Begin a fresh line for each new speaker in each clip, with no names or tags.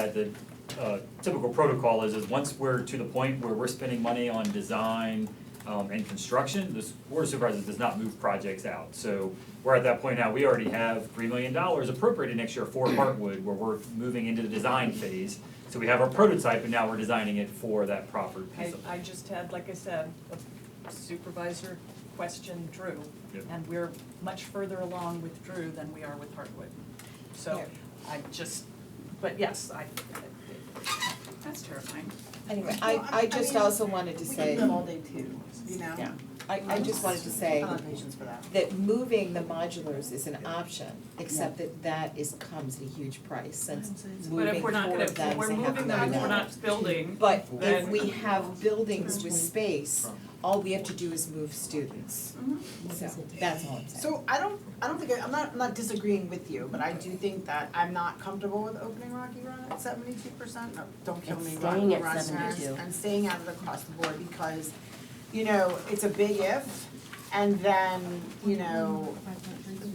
had the uh, typical protocol is, is once we're to the point where we're spending money on design um, and construction, the s- board of supervisors does not move projects out. So we're at that point now, we already have three million dollars appropriated next year for Parkwood, where we're moving into the design phase. So we have our prototype, and now we're designing it for that proper
I,
piece of.
I just had, like I said, a supervisor question Drew,
Yep.
and we're much further along with Drew than we are with Hartwood. So
Yeah.
I just, but yes, I, that's terrifying.
Anyway,
Well,
I,
I- I
I just
mean,
also wanted to
We
say,
can live all day too, you know?
yeah, I, I just wanted to
I
say
don't have patience for that.
that moving the modulars is an option, except that that is, comes at a huge price, since moving four of them is a half a million dollars.
building.
But if
then-
we have buildings with space, all we have to do is move students.
Mhm.
So, that's all I'm saying.
So I don't, I don't think, I- I'm not, I'm not disagreeing with you, but I do think that I'm not comfortable with opening Rocky Run at seventy-two percent, no, don't kill
It's
me,
staying
Rocky
at
Run,
72.
I'm staying out of the across the board because, you know, it's a big if, and then, you know,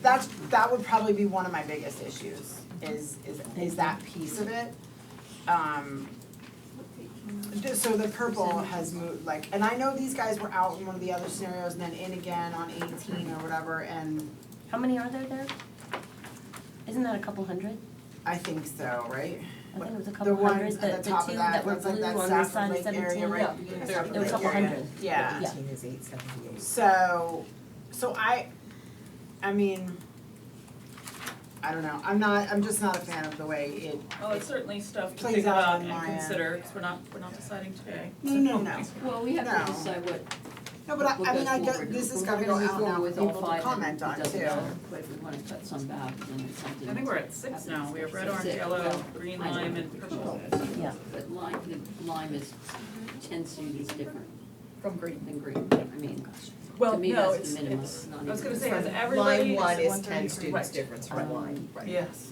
that's, that would probably be one of my biggest issues, is, is, is that piece of it. Um, Just so the purple has moved, like, and I know these guys were out in one of the other scenarios and then in again on eighteen or whatever, and
How many are there there? Isn't that a couple hundred?
I think so, right?
I think it was a
The
couple hundred,
ones
the,
at
the
the
two
top of that,
that were
that's like
blue
that
on this
Safford
side,
Lake area,
seventeen,
right?
yeah.
Beginning of
There-
Safford
there were a
Lake
couple
area.
hundred.
Yeah.
Yeah.
Eighteen is eight seventy-eight.
So, so I, I mean, I don't know, I'm not, I'm just not a fan of the way it.
Well, Oh, it's certainly stuff to
Plays
think
out
about
on
and
my end.
consider, because we're not, we're not deciding today.
No, no, no.
Well, we have
No.
to decide what,
No, but I,
We'll
I mean,
go
I get,
forward.
this is
We're
gotta go
gonna move
out now
forward
for
with all
people to
five and
comment
it
on too.
doesn't matter, but if we wanna cut some back, then it's something.
I think we're at six now, we have red, orange,
Six.
yellow,
Well,
green,
I know.
lime, and purple.
Yeah.
But lime, the lime is, ten students different
From green.
than green, I mean,
Well,
to me,
no,
that's
it's,
the minimum,
it's,
it's not
I
even.
was gonna say, has
Line
everybody?
one is
one
ten
thirty-three?
students
Right.
difference from line, right.
Yes.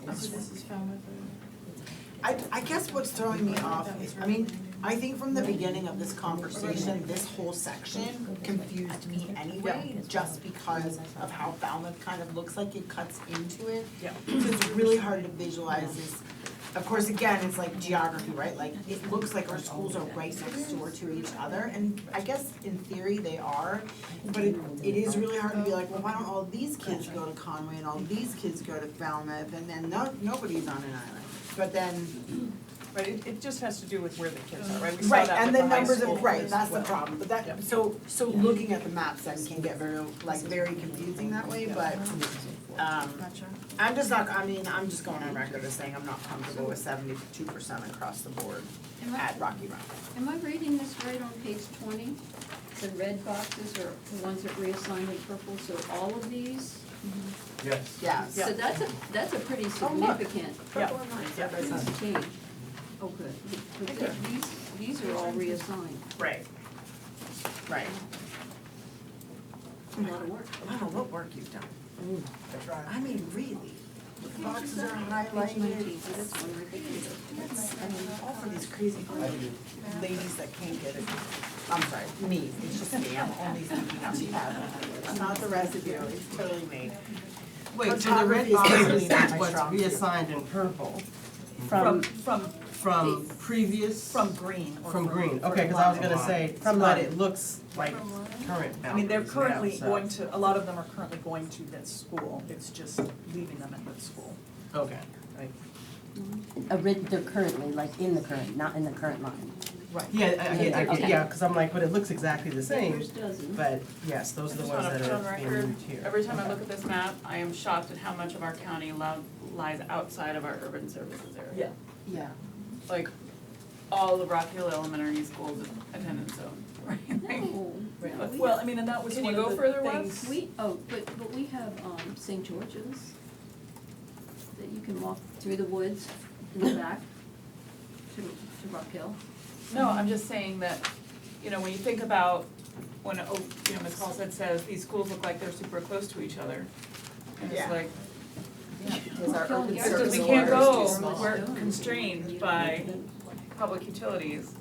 I, I guess what's throwing me off is, I mean, I think from the beginning of this conversation, this whole section confused me anyway, just because of how Falmouth kind of looks like it cuts into it.
Yeah.
So it's really hard to visualize this. Of course, again, it's like geography, right? Like, it looks like our schools are right next door to each other, and I guess in theory they are. But it, it is really hard to be like, well, why don't all these kids go to Conway and all these kids go to Falmouth, and then no, nobody's on an island. But then,
Right, it, it just has to do with where the kids are, right? We saw
Right,
that
and
with
the
high
numbers
school
of, right,
as
that's the
well.
problem, but
Yeah.
that, so, so looking at the maps then can get very, like, very confusing that way, but, um, I'm just not, I mean, I'm just going on record as saying I'm not comfortable with seventy-two percent across the board
Am I,
at Rocky Run.
am I reading this right on page twenty? The red boxes are the ones that reassign in purple, so all of these?
Yes.
Yes.
So that's a, that's a pretty
Oh, look.
significant
Purple and lime, yeah, that's not-
change. Oh, good, but th- these, these are all reassigned,
Right. Right.
a lot of work.
Wow, what work you've done. I mean, really, the boxes are
Page nineteen,
highlighted,
so that's one ridiculous.
I mean, all for these crazy ladies that can't get it. I'm sorry, me, it's just me, I'm only speaking on behalf of others. not the rest of you, it's totally me.
Wait, so the red
Photography is
boxes
clearly not
is
my
what's
strong suit.
reassigned in purple
From, from,
from previous,
from green or
from
from.
green,
or
okay, cause I was
lime.
gonna say,
From
but
lime.
it looks like current boundaries
I mean, they're
now,
currently
so-
going to, a lot of them are currently going to this school, it's just leaving them at this school.
Okay.
A rid, they're currently, like in the current, not in the current line.
Yeah, I- I, get- I, get-
Okay.
yeah, cause I'm like, but it looks exactly the same,
Yours doesn't.
but yes, those are the
Just
ones
wanna
that
put on
are being
record,
moved here.
Every time I look at this map, I am shocked at how much of our county lo- lies outside of our urban services area.
Yeah.
Like, all of Rock Hill Elementary School's attendance zone, right? Like,
No, no, we
Well, I mean, and that was
Can
one
you
of
go
the
further west?
things.
We, oh, but, but we have, um, St. George's, that you can walk through the woods in the back to, to Rock Hill.
No, I'm just saying that, you know, when you think about, when, oh, you know, Ms. Paul said, says, these schools look like they're super close to each other. And it's
Yeah.
like,
Because our urban
Yeah,
it's just
service
we
area
can't
is
go,
too small.
we're constrained by public utilities.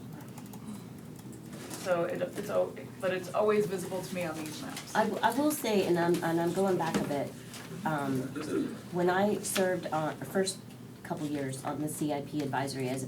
So it, it's, al- but it's always visible to me on these maps.
I, w- I will say, and I'm, and I'm going back a bit, um, when I served on, first couple years on the CIP advisory as a